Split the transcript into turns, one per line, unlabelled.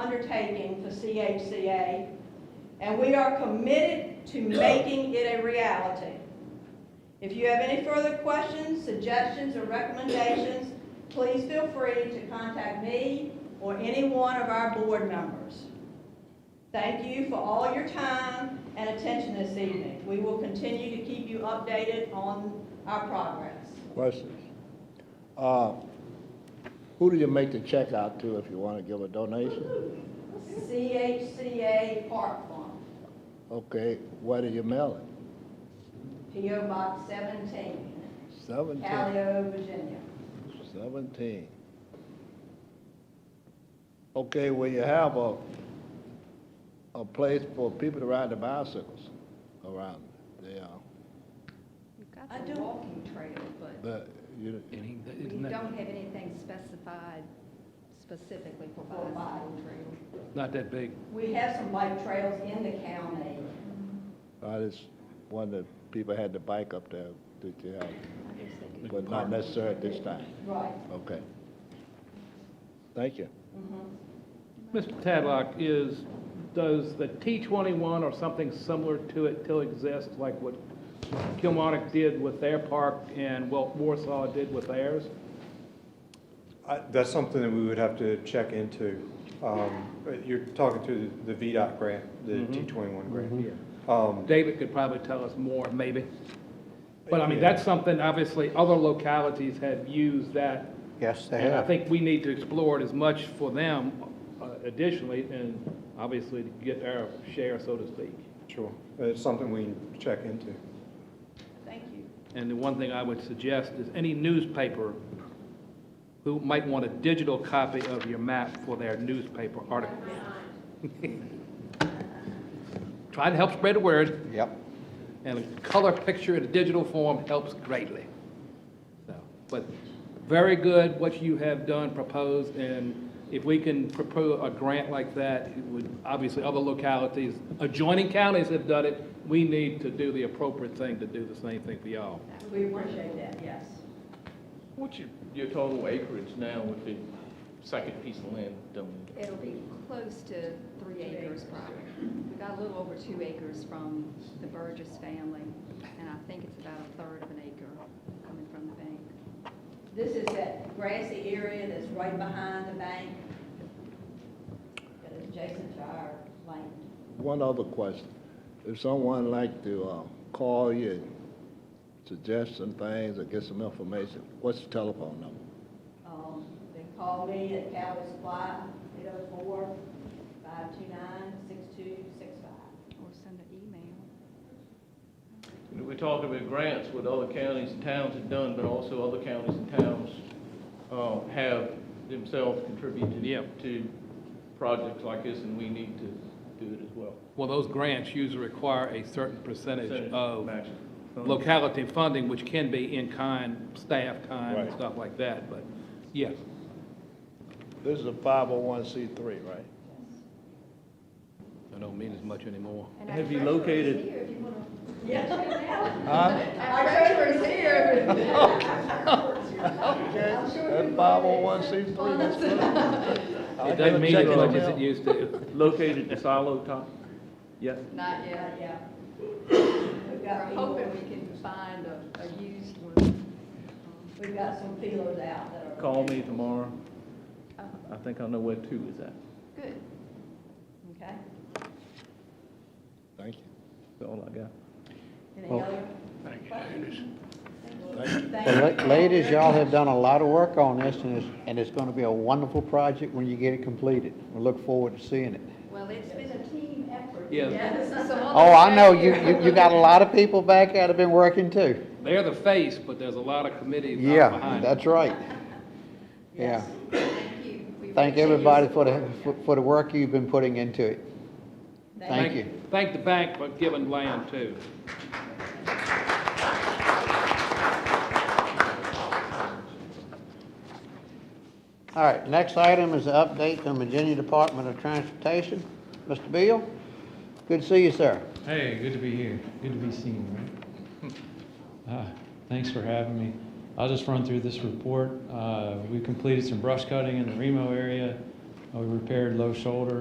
undertaking for CHCA, and we are committed to making it a reality. If you have any further questions, suggestions, or recommendations, please feel free to contact me or any one of our board members. Thank you for all your time and attention this evening. We will continue to keep you updated on our progress.
Questions? Uh, Who do you make the check out to if you want to give a donation?
CHCA Park Farm,
Okay, where do you mail it?
PO Box 17,
Seventeen,
Calio, Virginia.
seventeen. Okay, well, you have a, a place for people to ride their bicycles around there.
I do walking trail, but.
But you,
And he-
We
isn't
don't
that-
have anything specified specifically for bicycle trails.
Not that big.
We have some bike trails in the county.
I just wondered, if people had the bike up there, did you have, but not necessarily at this time,
Right.
okay? Thank you.
Mr. Tadlock, is, does the T21 or something similar to it still exist, like what Kilmarnock did with their park and what Warsaw did with theirs?
I- That's something that we would have to check into. Um, but You're talking to the the VDOT grant, the T21 grant. Um,
David could probably tell us more, maybe. But I mean,
Yeah.
that's something, obviously, other localities have used that.
Yes, they
And I
have.
think we need to explore it as much for them uh, additionally, and obviously to get our share, so to speak.
Sure, it's something we can check into.
Thank you.
And the one thing I would suggest is any newspaper who might want a digital copy of your map for their newspaper article. Try to help spread the word,
Yep.
and a color picture in a digital form helps greatly. So, But very good what you have done, proposed, and if we can propose a grant like that, it would, obviously, other localities, adjoining counties have done it. We need to do the appropriate thing to do the same thing for y'all.
We appreciate that, yes.
What's your, your total acreage now with the second piece of land done?
It'll be close to three acres probably. We got a little over two acres from the Burgess family, and I think it's about a third of an acre coming from the bank.
This is that grassy area that's right behind the bank. That is adjacent to our land.
One other question. If someone like to uh, call you, and suggest some things or get some information, what's the telephone number?
Um, They call me at Cali Supply, 804 529 6265.
Or send an email.
We're talking about grants, what other counties and towns have done, but also other counties and towns, uh, have themselves contributed
Yeah.
to projects like this, and we need to do it as well.
Well, those grants usually require a certain percentage
Percentage
of
matching.
locality funding, which can be in kind, staff time, and
Right.
stuff like that, but, yes.
This is a 501c3, right?
I don't mean as much anymore.
And
Have
our
you
treasurer's
located-
here if you wanna-
Our treasurer's here.
Okay, that's 501c3, that's good.
It doesn't mean as much as it used to.
Located in Silo Top? Yes.
Not yet.
Yeah. We've
We're
got people,
hoping we can find a, a used one.
we've got some feelers out that are.
Call me tomorrow.
Um, oh,
I think I know where two is at.
Good.
Okay.
Thank you.
That's all I got.
Any other? questions? Thank you,
Well,
Thank
la-
you.
Ladies, y'all have done a lot of work on this, and it's, and it's gonna be a wonderful project when you get it completed. We look forward to seeing it.
Well, it's been a team effort.
Yeah.
Oh, I know, you, you, you got a lot of people back there that have been working too.
They're the face, but there's a lot of committees out
Yeah,
behind.
that's right. Yeah.
Thank you. We
Thank
appreciate your
everybody for the,
support.
for- for the work you've been putting into it. Thank you.
Thank the bank for giving land, too.
All right, next item is the update from Virginia Department of Transportation. Mr. Beal, good to see you, sir.
Hey, good to be here. Good to be seen, right? Uh, Thanks for having me. I'll just run through this report. Uh, We completed some brush cutting in the Remo area.
Uh, We repaired low shoulder